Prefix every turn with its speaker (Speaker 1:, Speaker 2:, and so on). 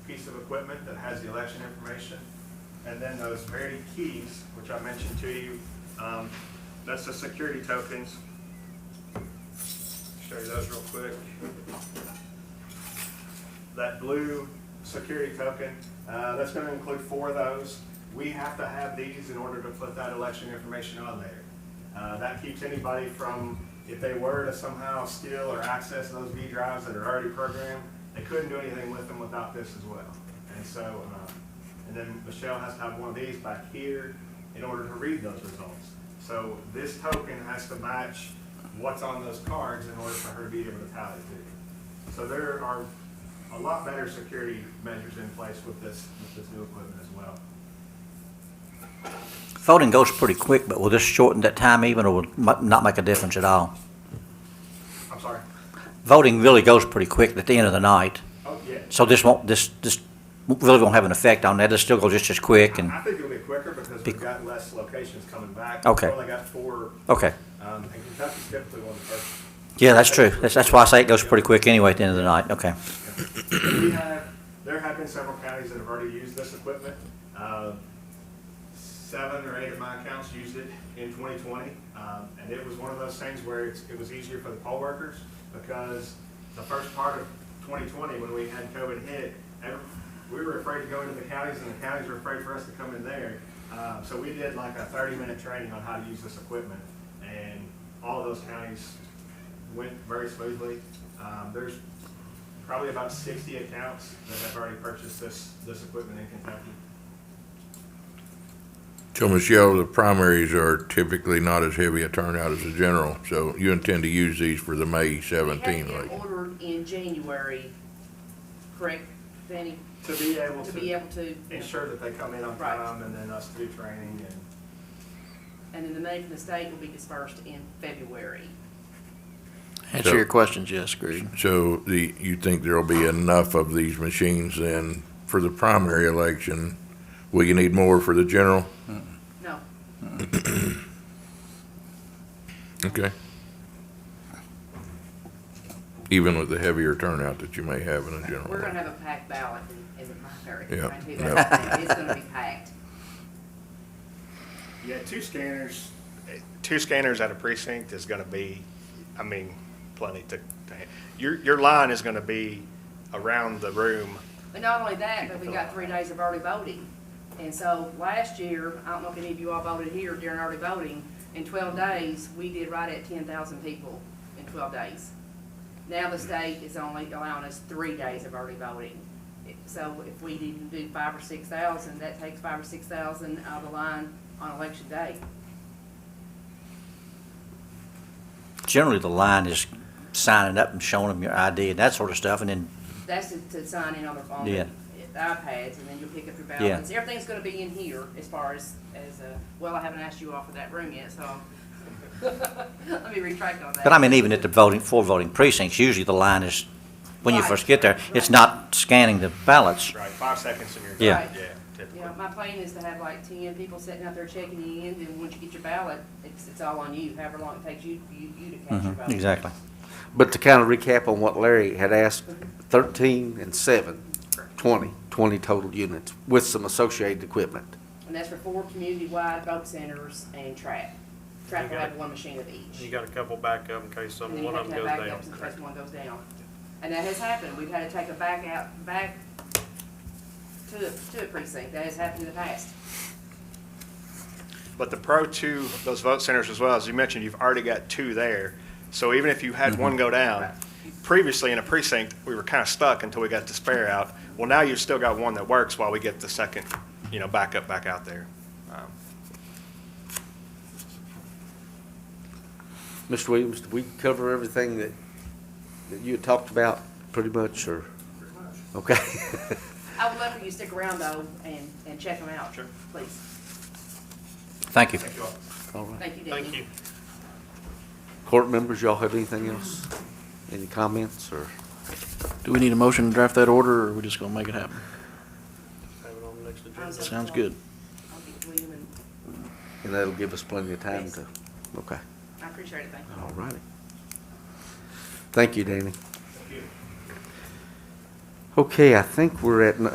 Speaker 1: piece of equipment that has the election information. And then those Verity keys, which I mentioned to you, um, that's the security tokens. Show you those real quick. That blue security token, uh, that's gonna include four of those. We have to have these in order to put that election information on there. Uh, that keeps anybody from, if they were to somehow steal or access those V drives that are already programmed, they couldn't do anything with them without this as well. And so, uh, and then Michelle has to have one of these back here in order to read those results. So this token has to match what's on those cards in order for her to be able to tally too. So there are a lot better security measures in place with this, with this new equipment as well.
Speaker 2: Voting goes pretty quick, but will this shorten that time even, or will mu- not make a difference at all?
Speaker 1: I'm sorry.
Speaker 2: Voting really goes pretty quick at the end of the night,
Speaker 1: Oh, yeah.
Speaker 2: so this won't, this, this really won't have an effect on that, it'll still go just as quick and,
Speaker 1: I think it'll be quicker because
Speaker 2: Be-
Speaker 1: we've got less locations coming back.
Speaker 2: Okay.
Speaker 1: We've only got four,
Speaker 2: okay.
Speaker 1: um, and Kentucky's typically one of the first.
Speaker 2: Yeah, that's true, that's, that's why I say it goes pretty quick anyway at the end of the night, okay.
Speaker 1: We have, there have been several counties that have already used this equipment. Uh, Seven or eight of my accounts used it in 2020. um, And it was one of those things where it's- it was easier for the poll workers because the first part of 2020, when we had COVID hit, ev- we were afraid to go into the counties and the counties were afraid for us to come in there. Uh, So we did like a 30-minute training on how to use this equipment. And all of those counties went very smoothly. Um, There's probably about sixty accounts that have already purchased this, this equipment in Kentucky.
Speaker 3: So Michelle, the primaries are typically not as heavy a turnout as the general, so you intend to use these for the May
Speaker 4: They
Speaker 3: seventeen
Speaker 4: had
Speaker 3: election?
Speaker 4: been ordered in January, correct, Fanny,
Speaker 1: To be able
Speaker 4: to be
Speaker 1: to
Speaker 4: able to,
Speaker 1: ensure that they come in on
Speaker 4: Right.
Speaker 1: time and then us do training and,
Speaker 4: and then the money from the state will be dispersed in February.
Speaker 3: So-
Speaker 5: Answer your questions, yes, Greg.
Speaker 3: So the, you think there'll be enough of these machines then for the primary election? Will you need more for the general?
Speaker 4: No,
Speaker 3: Okay. Even with the heavier turnout that you may have in a general?
Speaker 4: we're gonna
Speaker 3: election.
Speaker 4: have a packed ballot in, in the primary.
Speaker 3: Yeah,
Speaker 4: I tell you
Speaker 3: yeah.
Speaker 4: that. It's gonna be packed.
Speaker 1: yeah, two scanners, eh, two scanners at a precinct is gonna be, I mean, plenty to, to ha- your, your line is gonna be around the room.
Speaker 4: But not only that, but we got three days of early voting. And so last year, I don't know if any of you all voted here during early voting, in twelve days, we did right at ten thousand people in twelve days. Now the state is only allowing us three days of early voting. So if we didn't do five or six thousand, that takes five or six thousand out of the line on election day.
Speaker 2: Generally, the line is signing up and showing them your ID and that sort of stuff, and then,
Speaker 4: That's to- to sign in on the phone.
Speaker 2: Yeah.
Speaker 4: iPads, and then you'll pick up your ballots. Everything's gonna be in here as far as, as, uh, well, I haven't asked you all for that room yet, so let me retract on that.
Speaker 2: but I mean, even at the voting, for voting precincts, usually the line is, when you
Speaker 4: Right.
Speaker 2: first get there, it's
Speaker 4: Right.
Speaker 2: not scanning the ballots.
Speaker 1: Right, five seconds and you're
Speaker 2: Yeah.
Speaker 4: Right. Yeah, my plan is to have like ten people sitting out there checking in, and once you get your ballot, it's, it's all on you, however long it takes you, you, you to catch your
Speaker 2: Mhm,
Speaker 4: ballot.
Speaker 2: Exactly.
Speaker 6: But to kind of recap on what Larry had asked, thirteen and seven, twenty, twenty total units with some associated equipment.
Speaker 4: And that's for four community-wide vote centers and trap. Trap will
Speaker 7: You got-
Speaker 4: have one machine of each.
Speaker 7: You got a couple backup in case
Speaker 4: And
Speaker 7: some,
Speaker 4: then you
Speaker 7: one
Speaker 4: have
Speaker 7: of
Speaker 4: to
Speaker 7: them goes
Speaker 4: have backups in
Speaker 7: down.
Speaker 4: case one goes down. And that has happened, we've had to take a back out, back to, to a precinct, that has happened in the past.
Speaker 8: But the Pro Two, those vote centers as well, as you mentioned, you've already got two there. So even if you had one go down, previously in a precinct, we were kind of stuck until we got the spare out. Well, now you've still got one that works while we get the second, you know, backup back out there. Um,
Speaker 6: Mr. Williams, did we cover everything that, that you had talked about pretty much, or? Okay.
Speaker 4: I would love for you to stick around though and, and check them out. Sure. Please,
Speaker 2: Thank you.
Speaker 1: Thank you all.
Speaker 6: All right.
Speaker 4: thank you, Danny.
Speaker 7: Thank you.
Speaker 6: Court members, y'all have anything else? Any comments, or?
Speaker 5: Do we need a motion to draft that order, or are we just gonna make it happen?
Speaker 7: Have it on the next agenda.
Speaker 4: How's that
Speaker 5: Sounds
Speaker 4: sound?
Speaker 5: good.
Speaker 4: I'll get William and,
Speaker 6: And that'll give us plenty of time
Speaker 4: Yes.
Speaker 6: to, okay,
Speaker 4: I appreciate it, thank you.
Speaker 6: all righty. Thank you, Danny.
Speaker 1: Thank you.
Speaker 6: Okay, I think we're at n-